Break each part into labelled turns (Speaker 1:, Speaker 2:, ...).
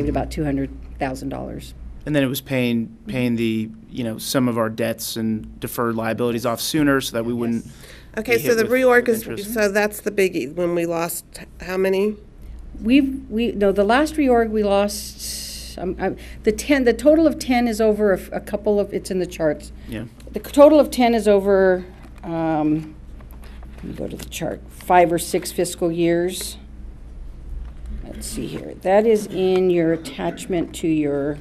Speaker 1: saved about $200,000.
Speaker 2: And then it was paying, paying the, you know, some of our debts and deferred liabilities off sooner so that we wouldn't.
Speaker 3: Okay,
Speaker 2: be
Speaker 3: so
Speaker 2: hit
Speaker 3: the
Speaker 2: with-
Speaker 3: reorg
Speaker 2: with
Speaker 3: is,
Speaker 2: interest.
Speaker 3: so that's the biggie, when we lost how many?
Speaker 1: We've, we, no, the last reorg, we lost, um, I- the 10, the total of 10 is over a f- a couple of, it's in the charts.
Speaker 2: Yeah.
Speaker 1: The c- total of 10 is over, um, let me go to the chart, five or six fiscal years. Let's see here. That is in your attachment to your,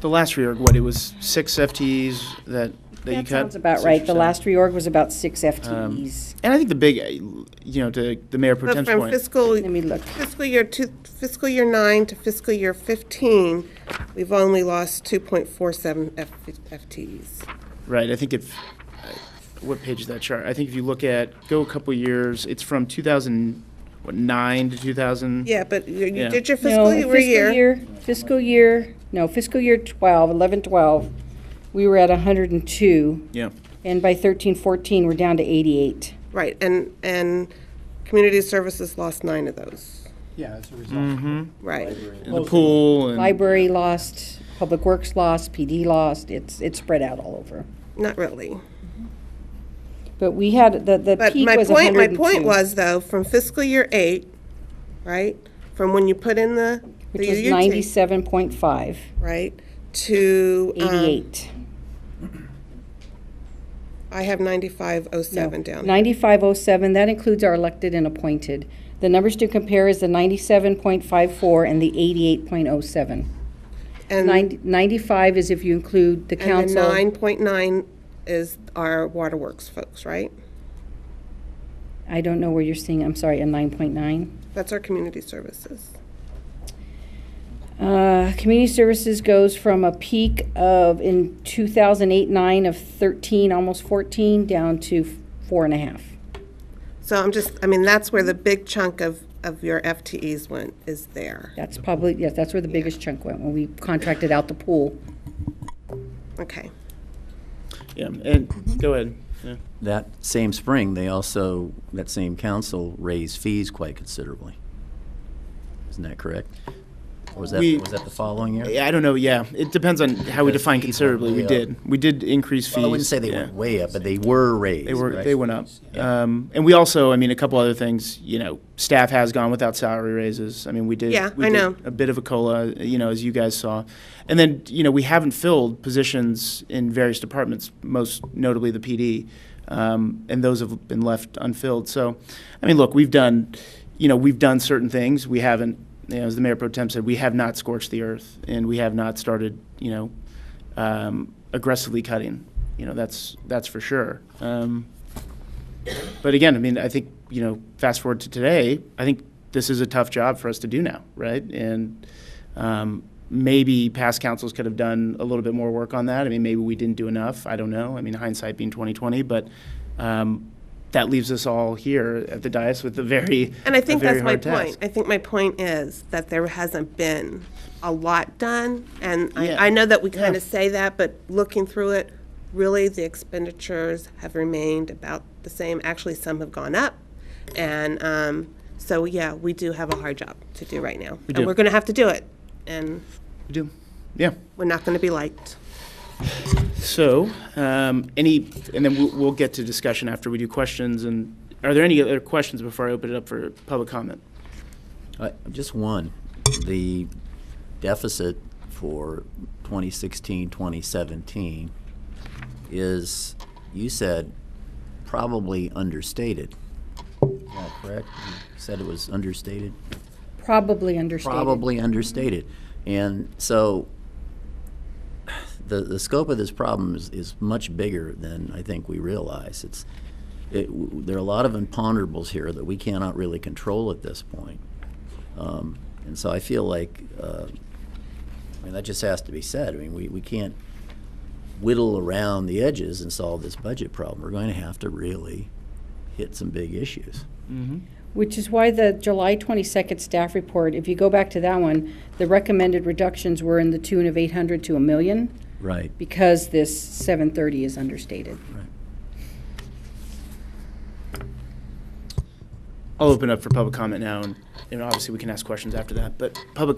Speaker 2: The last reorg, what, it was six FTEs that, that you
Speaker 1: that
Speaker 2: cut?
Speaker 1: sounds about right. The
Speaker 2: 6%.
Speaker 1: last reorg was about six
Speaker 2: Um,
Speaker 1: FTEs.
Speaker 2: And I think the big, uh, you know, to the mayor pro
Speaker 3: But
Speaker 2: tem's
Speaker 3: from
Speaker 2: point,
Speaker 3: fiscal,
Speaker 1: Let me look.
Speaker 3: fiscal year two, fiscal year nine to fiscal year fifteen, we've only lost two point four seven FTEs.
Speaker 2: right, I think if, uh, what page is that chart? I think if you look at, go a couple years, it's from 2009 to 2000.
Speaker 3: Yeah, but you you
Speaker 2: Yeah.
Speaker 3: did your
Speaker 1: No,
Speaker 3: fiscal year,
Speaker 1: Fiscal year, no, fiscal year 12, 11, 12, we were at 102.
Speaker 2: Yeah.
Speaker 1: And by 13, 14, we're down to 88.
Speaker 3: right, and, and community services lost nine of those,
Speaker 4: Yeah, as a result.
Speaker 3: right?
Speaker 2: The pool and.
Speaker 1: Library lost, Public Works lost, PD lost, it's, it's spread out all over.
Speaker 3: Not really.
Speaker 1: But we had, the, the
Speaker 3: But
Speaker 1: peak
Speaker 3: my
Speaker 1: was
Speaker 3: point,
Speaker 1: 102.
Speaker 3: my point was though, from fiscal year eight, right, from when you put in the,
Speaker 1: Which
Speaker 3: the
Speaker 1: was
Speaker 3: UUT,
Speaker 1: 97.5,
Speaker 3: right, to, um,
Speaker 1: 88.
Speaker 3: I have ninety-five oh
Speaker 1: No,
Speaker 3: seven down.
Speaker 1: 9507, that includes our elected and appointed. The numbers to compare is the 97.54 and the 88.07.
Speaker 3: And and
Speaker 1: Ninety- 95 is if you include the
Speaker 3: the
Speaker 1: council.
Speaker 3: nine point nine is our waterworks folks, right?
Speaker 1: I don't know where you're seeing, I'm sorry, a 9.9.
Speaker 3: That's our community services.
Speaker 1: Uh, Community services goes from a peak of, in 2008-9 of 13, almost 14, down to four and a half.
Speaker 3: So I'm just, I mean, that's where the big chunk of, of your FTEs went, is there.
Speaker 1: That's probably, yes, that's where the biggest chunk went, when we contracted out the pool.
Speaker 3: Okay.
Speaker 2: Yeah, and, go ahead. Yeah.
Speaker 5: That same spring, they also, that same council raised fees quite considerably. Isn't that correct? Or was that,
Speaker 2: We-
Speaker 5: was that the following year?
Speaker 2: Yeah, I don't know. Yeah, it depends on how we
Speaker 5: Because
Speaker 2: define
Speaker 5: people
Speaker 2: considerably. We
Speaker 5: way up.
Speaker 2: did. We did increase fees.
Speaker 5: Well, I wouldn't say they
Speaker 2: yeah.
Speaker 5: went way up, but they were raised.
Speaker 2: They were.
Speaker 5: right?
Speaker 2: They went up.
Speaker 5: Yeah.
Speaker 2: Um, and we also, I mean, a couple other things. You know, staff has gone without salary raises. I mean, we did.
Speaker 3: Yeah,
Speaker 2: we
Speaker 3: I
Speaker 2: did
Speaker 3: know.
Speaker 2: A bit of a cola, you know, as you guys saw, and then you know we haven't filled positions in various departments, most notably the PD, um, and those have been left unfilled. So, I mean, look, we've done, you know, we've done certain things. We haven't, you know, as the mayor pro tem said, we have not scorched the earth, and we have not started, you know, um, aggressively cutting. You know, that's that's for sure. Um, but again, I mean, I think, you know, fast forward to today, I think this is a tough job for us to do now, right? And um, maybe past councils could have done a little bit more work on that. I mean, maybe we didn't do enough. I don't know. I mean, hindsight being 2020, but um, that leaves us all here at the dais with a very,
Speaker 3: And I
Speaker 2: a
Speaker 3: think
Speaker 2: very
Speaker 3: that's my
Speaker 2: hard
Speaker 3: point.
Speaker 2: task.
Speaker 3: I think my point is that there hasn't been a lot done, and
Speaker 2: Yeah.
Speaker 3: I, I know that we kind
Speaker 2: Yeah.
Speaker 3: of say that, but looking through it, really, the expenditures have remained about the same. Actually, some have gone up, and, um, so, yeah, we do have a hard job to do right now.
Speaker 2: do.
Speaker 3: And we're gonna have to do it, and
Speaker 2: We do. Yeah.
Speaker 3: we're not gonna be liked.
Speaker 2: So, um, any, and then we'll, we'll get to discussion after we do questions. And are there any other questions before I open it up for public comment?
Speaker 5: Uh, Just one, the deficit for 2016, 2017 is, you said, probably understated. Is that correct? You said it was understated?
Speaker 1: Probably understated.
Speaker 5: probably understated. And so the, the scope of this problem is, is much bigger than I think we realize. It's, it, w- there are a lot of imponderables here that we cannot really control at this point. Um, and so I feel like, uh, I mean, that just has to be said. I mean, we, we can't whittle around the edges and solve this budget problem. We're going to have to really hit some big issues.
Speaker 1: Which is why the July 22nd staff report, if you go back to that one, the recommended reductions were in the tune of 800 to a million
Speaker 5: Right.
Speaker 1: because this 730 is understated.
Speaker 5: Right.
Speaker 2: I'll open up for public comment now, and, and obviously we can ask questions after that, but public